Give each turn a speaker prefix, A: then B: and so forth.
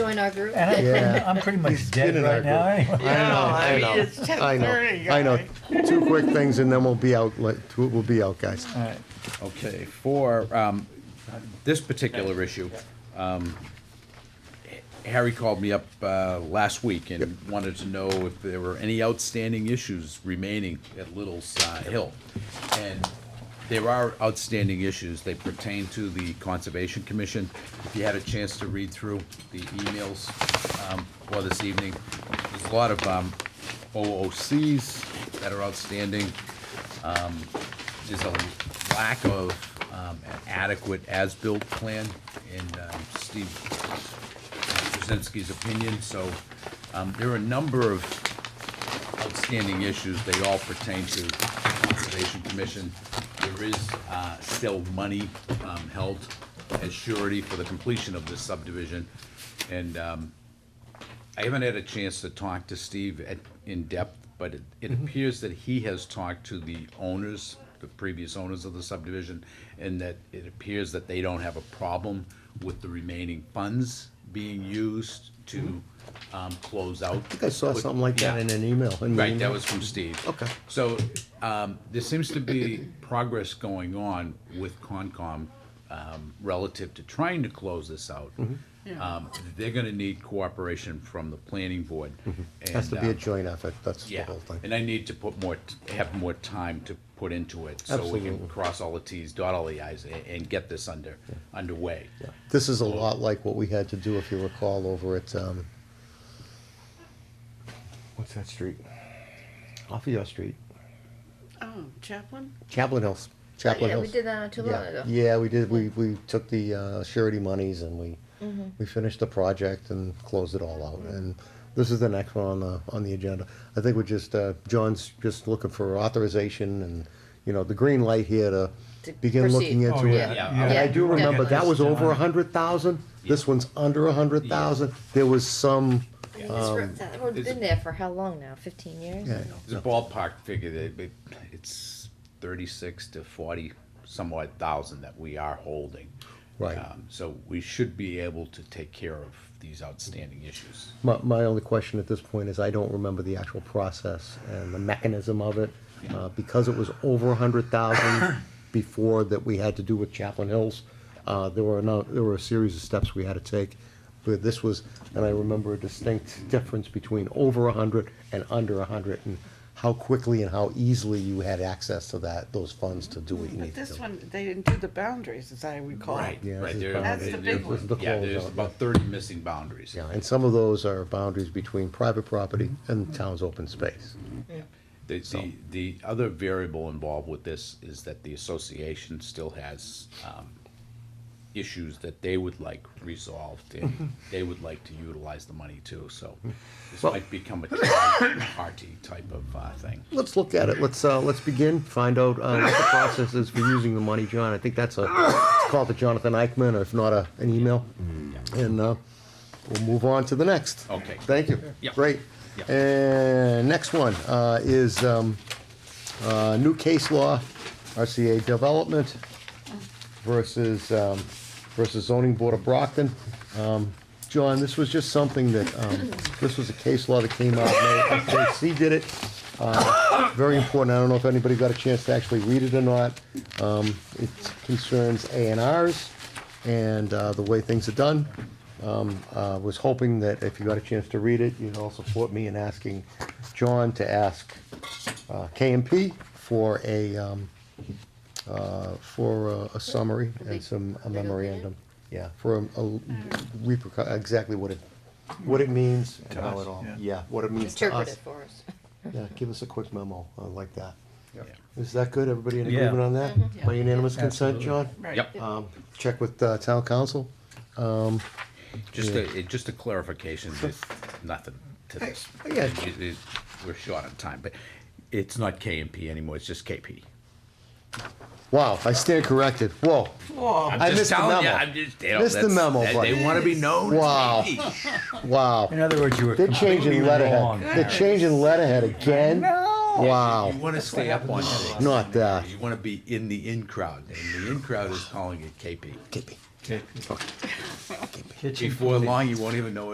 A: join our group?
B: And I'm,
C: Yeah.
B: I'm pretty
C: He's
B: much dead
C: kidding our
B: right now
C: group.
B: anyway.
D: Yeah, I mean,
C: know,
D: it's
C: I know,
D: 10:30,
C: I know.
D: guy.
C: Two quick things and then we'll be out, like, two- we'll be out, guys.
B: All right.
E: Okay, for um, this particular issue, um, Harry called me up uh, last week and wanted to know if there were any outstanding issues remaining at Little's uh, Hill. And there are outstanding issues. They pertain to the Conservation Commission. If you had a chance to read through the emails um, for this evening, there's a lot of um, OOCs that are outstanding there's a lack of um, an adequate as-built plan in um, Steve Krasinski's opinion, so um, there are a number of outstanding issues. They all pertain to the Conservation Commission. There is uh, still money um, held as surety for the completion of this subdivision, and um, I haven't had a chance to talk to Steve at, in depth, but it, it
C: Mm-hmm.
E: appears that he has talked to the owners, the previous owners of the subdivision, and that it appears that they don't have a problem with the remaining funds being used to, um, close out.
C: Mm-hmm. I think I saw something like that in an email. in the
E: Right, that
C: email.
E: was from Steve.
C: Mm-hmm. Okay.
E: So, um, there seems to be progress going on with Concom, um, relative to trying to close this out.
C: Mm-hmm.
E: Um, they're gonna need cooperation from the planning board.
C: Mm-hmm. Has to
E: and,
C: be a
E: um,
C: joint effort, that's the
E: Yeah,
C: whole thing.
E: and I need to put more, t- have more time to put into it, so we
C: Absolutely.
E: can cross all the Ts, dot all the Is, a- and get this under, underway.
C: This is a lot like what we had to do, if you recall, over at, um, what's that street? Off of your street.
D: Oh, Chaplin?
C: Chaplain Hills,
A: Oh,
C: Chaplain
A: Yeah,
C: Hills.
A: we did that not too long
C: Yeah.
A: ago.
C: Yeah, we did, we, we took the uh, surety monies and we,
A: Mm-hmm.
C: we finished the project and closed it all out. And this is the next one on the, on the agenda. I think we're just, uh, John's just looking for authorization and, you know, the green light here to
A: To
C: begin looking
A: proceed.
C: into
B: Oh,
C: it.
B: yeah,
E: Yeah,
B: yeah.
C: And I do
A: Yeah.
C: remember, that was over a
B: Yeah.
C: hundred thousand, this one's under a hundred thousand. There was some,
A: I mean, this road- That road's
E: is
A: been
E: it-
A: there for how long now? Fifteen years?
C: Um, yeah,
E: It's a ballpark figure, that it- it's thirty-six to forty somewhat thousand that we are holding.
C: Right.
E: Um, So we should be able to take care of these outstanding issues.
C: My, my only question at this point is I don't remember the actual process and the mechanism of it. Uh, because it was over a hundred thousand before that we had to do with Chaplain Hills, uh, there were no, there were a series of steps we had to take. But this was, and I remember a distinct difference between over a hundred and under a hundred and how quickly and how easily you had access to that, those funds to do what you
D: But
C: needed to
D: this
C: do.
D: one, they didn't do the boundaries, as I recall.
E: Right,
C: Yeah,
E: right.
C: this is
E: there-
C: boundaries.
D: That's the
E: there-
D: big one.
C: This is the
E: Yeah, there's
C: closeout,
E: about thirty missing boundaries.
C: Yeah, and some of those are boundaries between private property and town's open space.
E: The, the, the other variable involved with this is that the association still has, um, issues that they would like resolved, and they would like to utilize the money too, so this might become a party type of, uh, thing.
C: Let's look at it. Let's, uh, let's begin, find out, uh, what the process is for using the money, John. I think that's a, it's called the Jonathan Eichman, or if not, a, an email. And, uh, we'll move on to the next.
E: Okay.
C: Thank you.
E: Yep.
C: Great.
E: Yep.
C: And next one, uh, is, um, uh, new case law, RCA Development versus, um, versus zoning board of Brockton. Um, John, this was just something that, um, this was a case law that came out, FJC did it. Uh, Very important, I don't know if anybody got a chance to actually read it or not. Um, It concerns A and Rs and uh, the way things are done. Um, uh, Was hoping that if you got a chance to read it, you'd all support me in asking John to ask uh, KMP for a, um, uh, for a- a summary and some a memorandum. Yeah, for a- a repercu- exactly what it, what it means and how it all,
B: yeah.
C: yeah, what it means to
A: Interpret
C: us.
A: it for us.
C: Yeah, give us a quick memo uh, like that.
E: Yeah.
C: Is that good? Everybody in
B: Yeah.
C: agreement on that? By unanimous consent, John?
D: Right.
E: Yep.
C: Um, Check with uh, town council?
E: Just a, it- just a clarification, there's nothing to this.
C: yeah.
E: It- it- We're short on time, but it's not KMP anymore, it's just KP.
C: Wow, I stand corrected. Whoa.
D: Whoa,
E: I'm
C: Oh, I
E: just
C: missed the
E: telling ya,
C: memo.
E: I'm just- you know,
C: Missed the
E: that's-
C: memo,
E: they-
C: buddy.
E: They wanna be known
C: Wow.
E: as KP.
B: In
C: Wow.
B: other words, you were
C: They're
B: completely
C: changing
B: wrong.
C: letterhead. They're changing letterhead again?
E: You
C: Wow.
E: want to stay up on things.
C: Not that.
E: You want to be in the in crowd, and the in crowd is calling it KP.
C: Keep it.
B: Kitchen
E: Before long, you won't even know